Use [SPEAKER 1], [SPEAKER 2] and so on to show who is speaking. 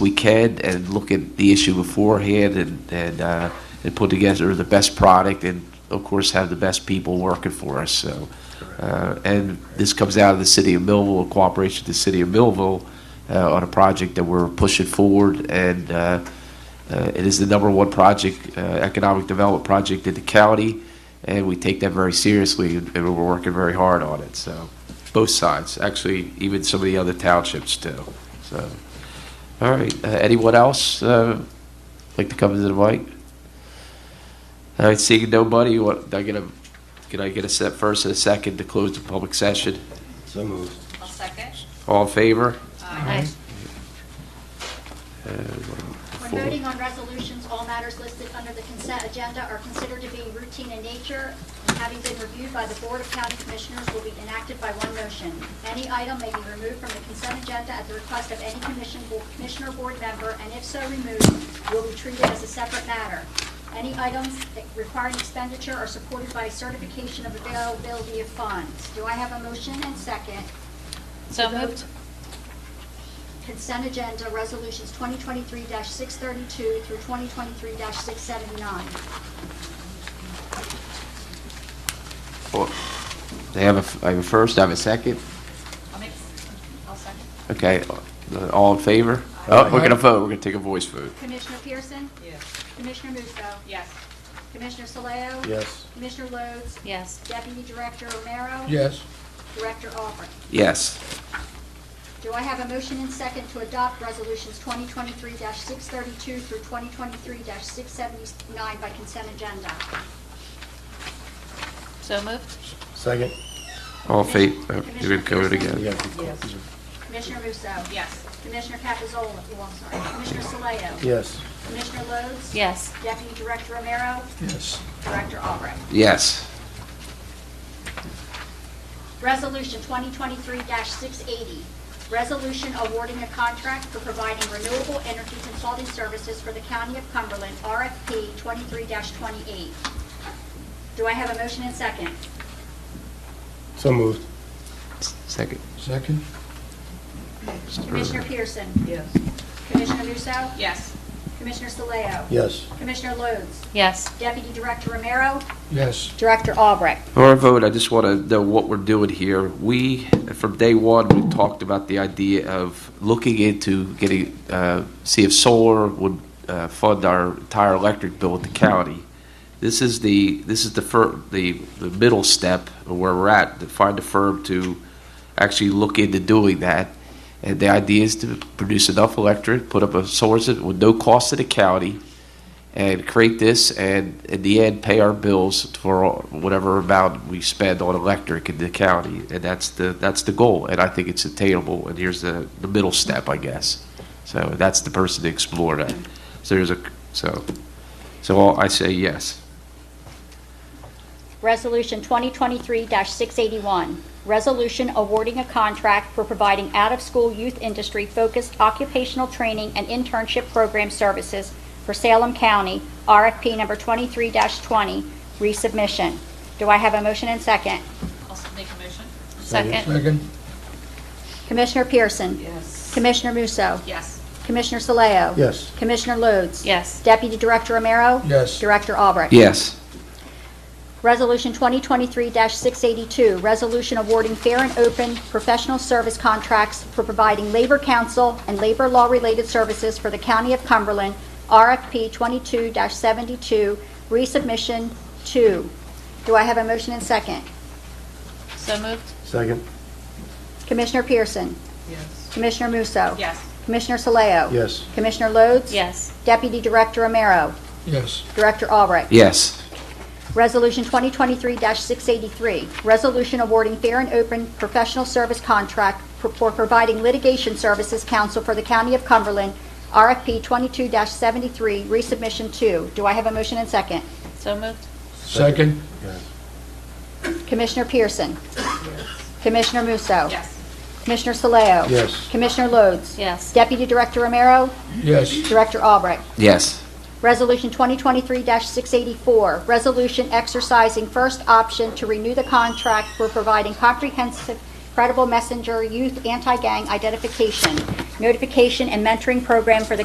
[SPEAKER 1] we can and look at the issue beforehand and, and, uh, and put together the best product and, of course, have the best people working for us, so. Uh, and this comes out of the city of Millville, in cooperation with the city of Millville, uh, on a project that we're pushing forward and, uh, uh, It is the number one project, uh, economic development project in the county, and we take that very seriously, and we're working very hard on it, so, both sides, actually, even some of the other townships too, so. All right, uh, anyone else uh, like to come to the mic? All right, seeing nobody, what, I get a, can I get a set first and a second to close the public session?
[SPEAKER 2] So moved.
[SPEAKER 3] I'll second.
[SPEAKER 1] All in favor?
[SPEAKER 3] Aye.
[SPEAKER 4] When voting on resolutions, all matters listed under the consent agenda are considered to be routine in nature, and having been reviewed by the Board of County Commissioners will be enacted by one motion. Any item may be removed from the consent agenda at the request of any commission, commissioner, or board member, and if so removed, will be treated as a separate matter. Any items requiring expenditure are supported by certification of availability of funds. Do I have a motion and second?
[SPEAKER 3] So moved.
[SPEAKER 4] Consent agenda, resolutions 2023-632 through 2023-679.
[SPEAKER 1] Well, Uh, They have a, f- I have a first, I have a second.
[SPEAKER 3] I'll make, I'll second.
[SPEAKER 1] Okay, uh, all in favor? Oh, we're gonna vote, we're gonna take a voice vote.
[SPEAKER 4] Commissioner Pearson?
[SPEAKER 3] Yes.
[SPEAKER 4] Commissioner Musso?
[SPEAKER 3] Yes.
[SPEAKER 4] Commissioner Saleo?
[SPEAKER 2] Yes.
[SPEAKER 4] Commissioner Lodes?
[SPEAKER 3] Yes.
[SPEAKER 4] Deputy Director Romero?
[SPEAKER 2] Yes.
[SPEAKER 4] Director Aubrey?
[SPEAKER 1] Yes.
[SPEAKER 4] Do I have a motion and second to adopt resolutions 2023-632 through 2023-679 by consent agenda?
[SPEAKER 3] So moved.
[SPEAKER 2] Second.
[SPEAKER 1] All in favor, you're gonna go it
[SPEAKER 2] You
[SPEAKER 1] again.
[SPEAKER 2] got to-
[SPEAKER 3] Yes.
[SPEAKER 4] Commissioner Musso?
[SPEAKER 3] Yes.
[SPEAKER 4] Commissioner Capizola, oh, I'm sorry, Commissioner Saleo?
[SPEAKER 2] Yes.
[SPEAKER 4] Commissioner Lodes?
[SPEAKER 3] Yes.
[SPEAKER 4] Deputy Director Romero?
[SPEAKER 2] Yes.
[SPEAKER 4] Director Albright.
[SPEAKER 1] Yes.
[SPEAKER 4] Resolution 2023-680, resolution awarding a contract for providing renewable energy consulting services for the County of Cumberland, RFP 23-28. Do I have a motion and second?
[SPEAKER 2] So moved.
[SPEAKER 1] Second.
[SPEAKER 2] Second.
[SPEAKER 4] Commissioner Pearson?
[SPEAKER 3] Yes.
[SPEAKER 4] Commissioner Musso?
[SPEAKER 3] Yes.
[SPEAKER 4] Commissioner Saleo?
[SPEAKER 2] Yes.
[SPEAKER 4] Commissioner Lodes?
[SPEAKER 3] Yes.
[SPEAKER 4] Deputy Director Romero?
[SPEAKER 2] Yes.
[SPEAKER 4] Director Albrecht?
[SPEAKER 1] Before I vote, I just want to know what we're doing here. We, from day one, we talked about the idea of looking into getting, uh, see if solar would uh, fund our entire electric bill at the county. This is the, this is the fir, the, the middle step of where we're at, to find a firm to actually look into doing that. And the idea is to produce enough electric, put up a source with no cost to the county, and create this and in the end pay our bills for all- whatever amount we spend on electric in the county and that's the that's the goal and I think it's attainable and here's the the middle step I guess so that's the person to explore that so there's a so so all- I say yes
[SPEAKER 4] Resolution 2023-681, resolution awarding a contract for providing out-of-school youth industry-focused occupational training and internship program services for Salem County, RFP number 23-20, resubmission. Do I have a motion and second?
[SPEAKER 3] I'll s- make a motion. Second.
[SPEAKER 4] Commissioner Pearson?
[SPEAKER 3] Yes.
[SPEAKER 4] Commissioner Musso?
[SPEAKER 3] Yes.
[SPEAKER 4] Commissioner Saleo?
[SPEAKER 2] Yes.
[SPEAKER 4] Commissioner Lodes?
[SPEAKER 3] Yes.
[SPEAKER 4] Deputy Director Romero?
[SPEAKER 2] Yes.
[SPEAKER 4] Director Albrecht?
[SPEAKER 1] yes
[SPEAKER 4] Resolution 2023-682, resolution awarding fair and open professional service contracts for providing labor counsel and labor law-related services for the County of Cumberland, RFP 22-72, resubmission 2. Do I have a motion and second?
[SPEAKER 3] So moved.
[SPEAKER 2] Second.
[SPEAKER 4] Commissioner Pearson?
[SPEAKER 3] Yes.
[SPEAKER 4] Commissioner Musso?
[SPEAKER 3] Yes.
[SPEAKER 4] Commissioner Saleo?
[SPEAKER 2] Yes.
[SPEAKER 4] Commissioner Lodes?
[SPEAKER 3] Yes.
[SPEAKER 4] Deputy Director Romero?
[SPEAKER 2] Yes.
[SPEAKER 4] Director Albright?
[SPEAKER 1] yes
[SPEAKER 4] Resolution 2023-683, resolution awarding fair and open professional service contract for- for providing litigation services counsel for the County of Cumberland, RFP 22-73, resubmission 2. Do I have a motion and second?
[SPEAKER 3] So moved.
[SPEAKER 2] Second.
[SPEAKER 4] Commissioner Pearson? Commissioner Musso?
[SPEAKER 3] Yes.
[SPEAKER 4] Commissioner Saleo?
[SPEAKER 2] Yes.
[SPEAKER 4] Commissioner Lodes?
[SPEAKER 3] Yes.
[SPEAKER 4] Deputy Director Romero?
[SPEAKER 2] Yes.
[SPEAKER 4] Director Albrecht?
[SPEAKER 1] yes
[SPEAKER 4] Resolution 2023-684, resolution exercising first option to renew the contract for providing comprehensive Credible Messenger Youth Anti-Gang Identification, Notification and Mentoring Program for the